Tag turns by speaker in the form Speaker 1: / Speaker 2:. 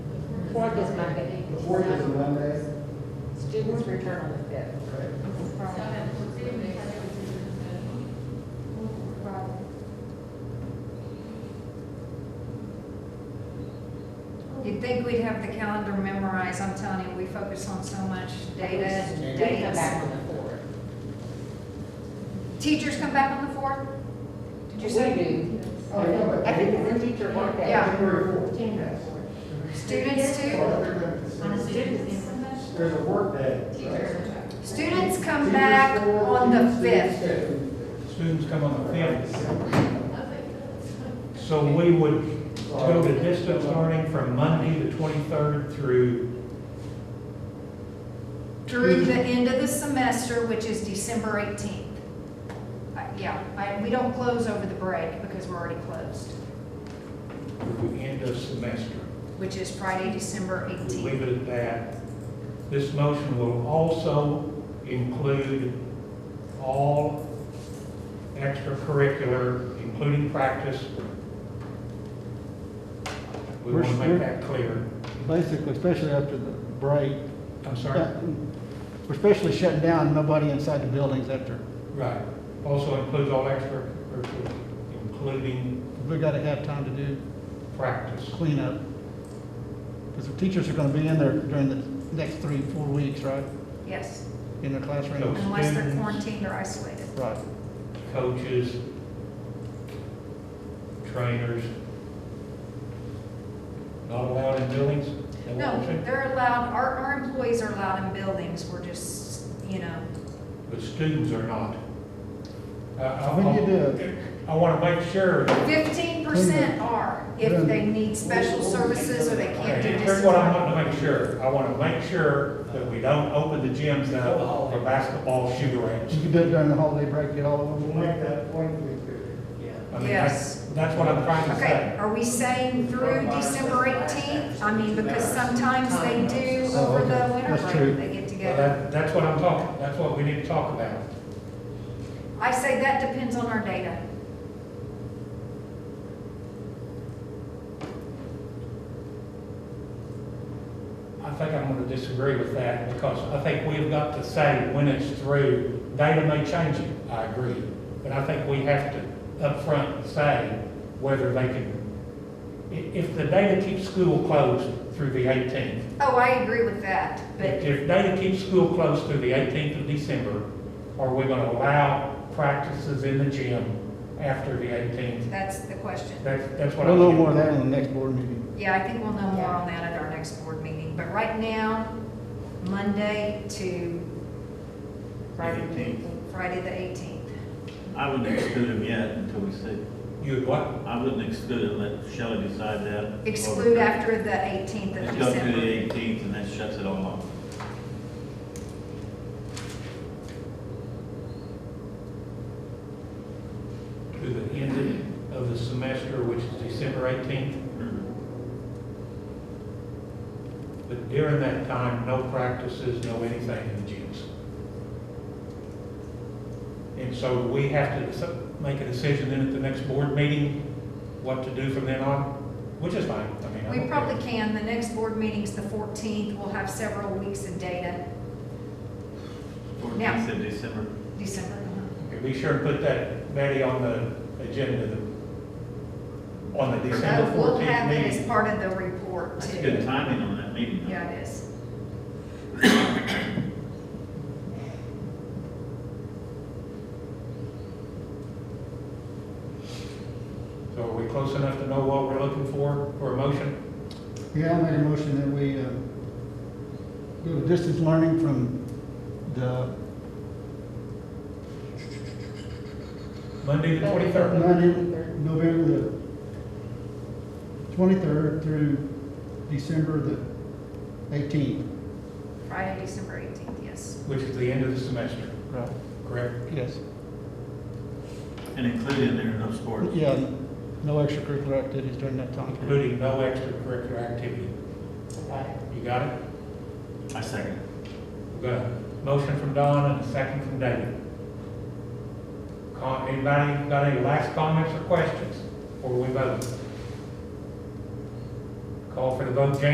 Speaker 1: Fourth is Monday.
Speaker 2: The fourth is a Monday,
Speaker 1: Students return on the fifth.
Speaker 2: okay?
Speaker 3: You'd think we'd have the calendar memorized, I'm telling you, we focus on so much data and
Speaker 1: They come back
Speaker 3: dates.
Speaker 1: on the fourth.
Speaker 3: Teachers come back on the fourth? Did you
Speaker 1: We
Speaker 3: say?
Speaker 1: do.
Speaker 2: Oh, yeah, but-
Speaker 1: I think it's a teacher work day.
Speaker 3: Yeah.
Speaker 2: January fourth.
Speaker 1: January
Speaker 3: Students too?
Speaker 2: Well, they're gonna consider- There's a work day. right?
Speaker 3: Students come
Speaker 2: Teachers
Speaker 3: back
Speaker 2: fourth,
Speaker 3: on the
Speaker 2: students
Speaker 3: fifth.
Speaker 2: fifth.
Speaker 4: Students come on the fifth,
Speaker 2: fifth.
Speaker 4: so we would go to distance learning from Monday the twenty-third through,
Speaker 3: Through the end of the semester, which is December eighteenth. Uh, Yeah, I, we don't close over the break because we're already closed,
Speaker 4: through the end of semester.
Speaker 3: which is Friday, December
Speaker 4: We
Speaker 3: eighteenth.
Speaker 4: Leave it at that. This motion will also include all extracurricular, including practice. We want to make that clear.
Speaker 5: Basically, especially after the break,
Speaker 4: I'm sorry.
Speaker 5: that- we're especially shutting down, nobody inside the buildings after.
Speaker 4: Right. Also includes all extracurricular, including
Speaker 5: We gotta have time to do
Speaker 4: practice.
Speaker 5: cleanup. Because the teachers are gonna be in there during the next three, four weeks, right?
Speaker 3: Yes,
Speaker 5: In their classrooms.
Speaker 3: unless they're
Speaker 4: Students.
Speaker 3: quarantined or isolated.
Speaker 5: Right.
Speaker 4: coaches, trainers, not allowed in buildings? They
Speaker 3: No,
Speaker 4: won't take-
Speaker 3: they're allowed, our, our employees are allowed in buildings, we're just, you know,
Speaker 4: But students are not. I- I-
Speaker 5: When you do,
Speaker 4: I want to make sure,
Speaker 3: fifteen percent are if they need special services or they can't do
Speaker 4: here's what I
Speaker 3: this.
Speaker 4: want to make sure. I want to make sure that we don't open the gyms up for basketball shoot
Speaker 5: you
Speaker 4: range.
Speaker 5: can do it during the holiday break, get all of
Speaker 2: We'll
Speaker 5: them.
Speaker 2: make that point if we could.
Speaker 4: I mean,
Speaker 3: Yes.
Speaker 4: that's- That's what I'm trying to
Speaker 3: Okay,
Speaker 4: say.
Speaker 3: are we saying through December eighteenth? I mean, because sometimes they do
Speaker 5: Oh,
Speaker 3: over the
Speaker 5: okay.
Speaker 3: winter
Speaker 5: That's true.
Speaker 3: break, they get
Speaker 4: Well,
Speaker 3: together.
Speaker 4: that- That's what I'm talking, that's what we need to talk about.
Speaker 3: I say that depends on our data.
Speaker 4: I think I'm gonna disagree with that because I think we've got to say when it's through, data may change it, I agree. But I think we have to upfront say whether they can, i- if the data keeps school closed through the eighteenth,
Speaker 3: Oh, I agree with that, but
Speaker 4: if data keeps school closed through the eighteenth of December, are we gonna allow practices in the gym after the eighteenth?
Speaker 3: that's the question.
Speaker 4: That's, that's what I'm.
Speaker 5: We'll know more of that in the next board meeting.
Speaker 3: Yeah, I think we'll know more on that at our next board meeting, but right now, Monday to
Speaker 1: Friday.
Speaker 3: Friday the eighteenth.
Speaker 6: I wouldn't exclude him yet until we see.
Speaker 4: You what?
Speaker 6: I wouldn't exclude him, let Shelley decide that.
Speaker 3: Exclude after the eighteenth of
Speaker 6: Let's go through the
Speaker 3: December.
Speaker 6: eighteenth and that shuts it all off.
Speaker 4: to the end of the semester, which is December 18th. But during that time, no practices, no anything in the gyms. And so we have to deci- make a decision then at the next board meeting, what to do from then on, which is fine. I mean, I
Speaker 3: We
Speaker 4: don't
Speaker 3: probably
Speaker 4: care.
Speaker 3: can, the next board meeting's the fourteenth, we'll have several weeks of data, Now-
Speaker 6: Fourteenth of December.
Speaker 3: December.
Speaker 4: Okay, Be sure and put that, Betty, on the agenda, the- on the December
Speaker 3: Uh, We'll
Speaker 4: 14th
Speaker 3: have it as
Speaker 4: meeting.
Speaker 3: part of the report
Speaker 6: That's good
Speaker 3: too.
Speaker 6: timing on that meeting. though.
Speaker 3: Yeah, it is.
Speaker 4: So are we close enough to know what we're looking for, for a motion?
Speaker 5: Yeah, I made a motion that we uh, go to distance learning from the
Speaker 4: Monday the 23rd.
Speaker 5: Monday, November the twenty-third through December the eighteenth.
Speaker 3: Friday, December eighteenth, yes.
Speaker 4: which is the end of the semester,
Speaker 5: Right.
Speaker 4: correct?
Speaker 5: Yes.
Speaker 6: And include in there no sports.
Speaker 5: Yeah, no extracurricular activities during that time. period.
Speaker 4: Including no extracurricular activity. You got it?
Speaker 6: I second.
Speaker 4: We've got a motion from Don and a second from David. Com- Anybody got any last comments or questions before we vote? Call for the vote, James?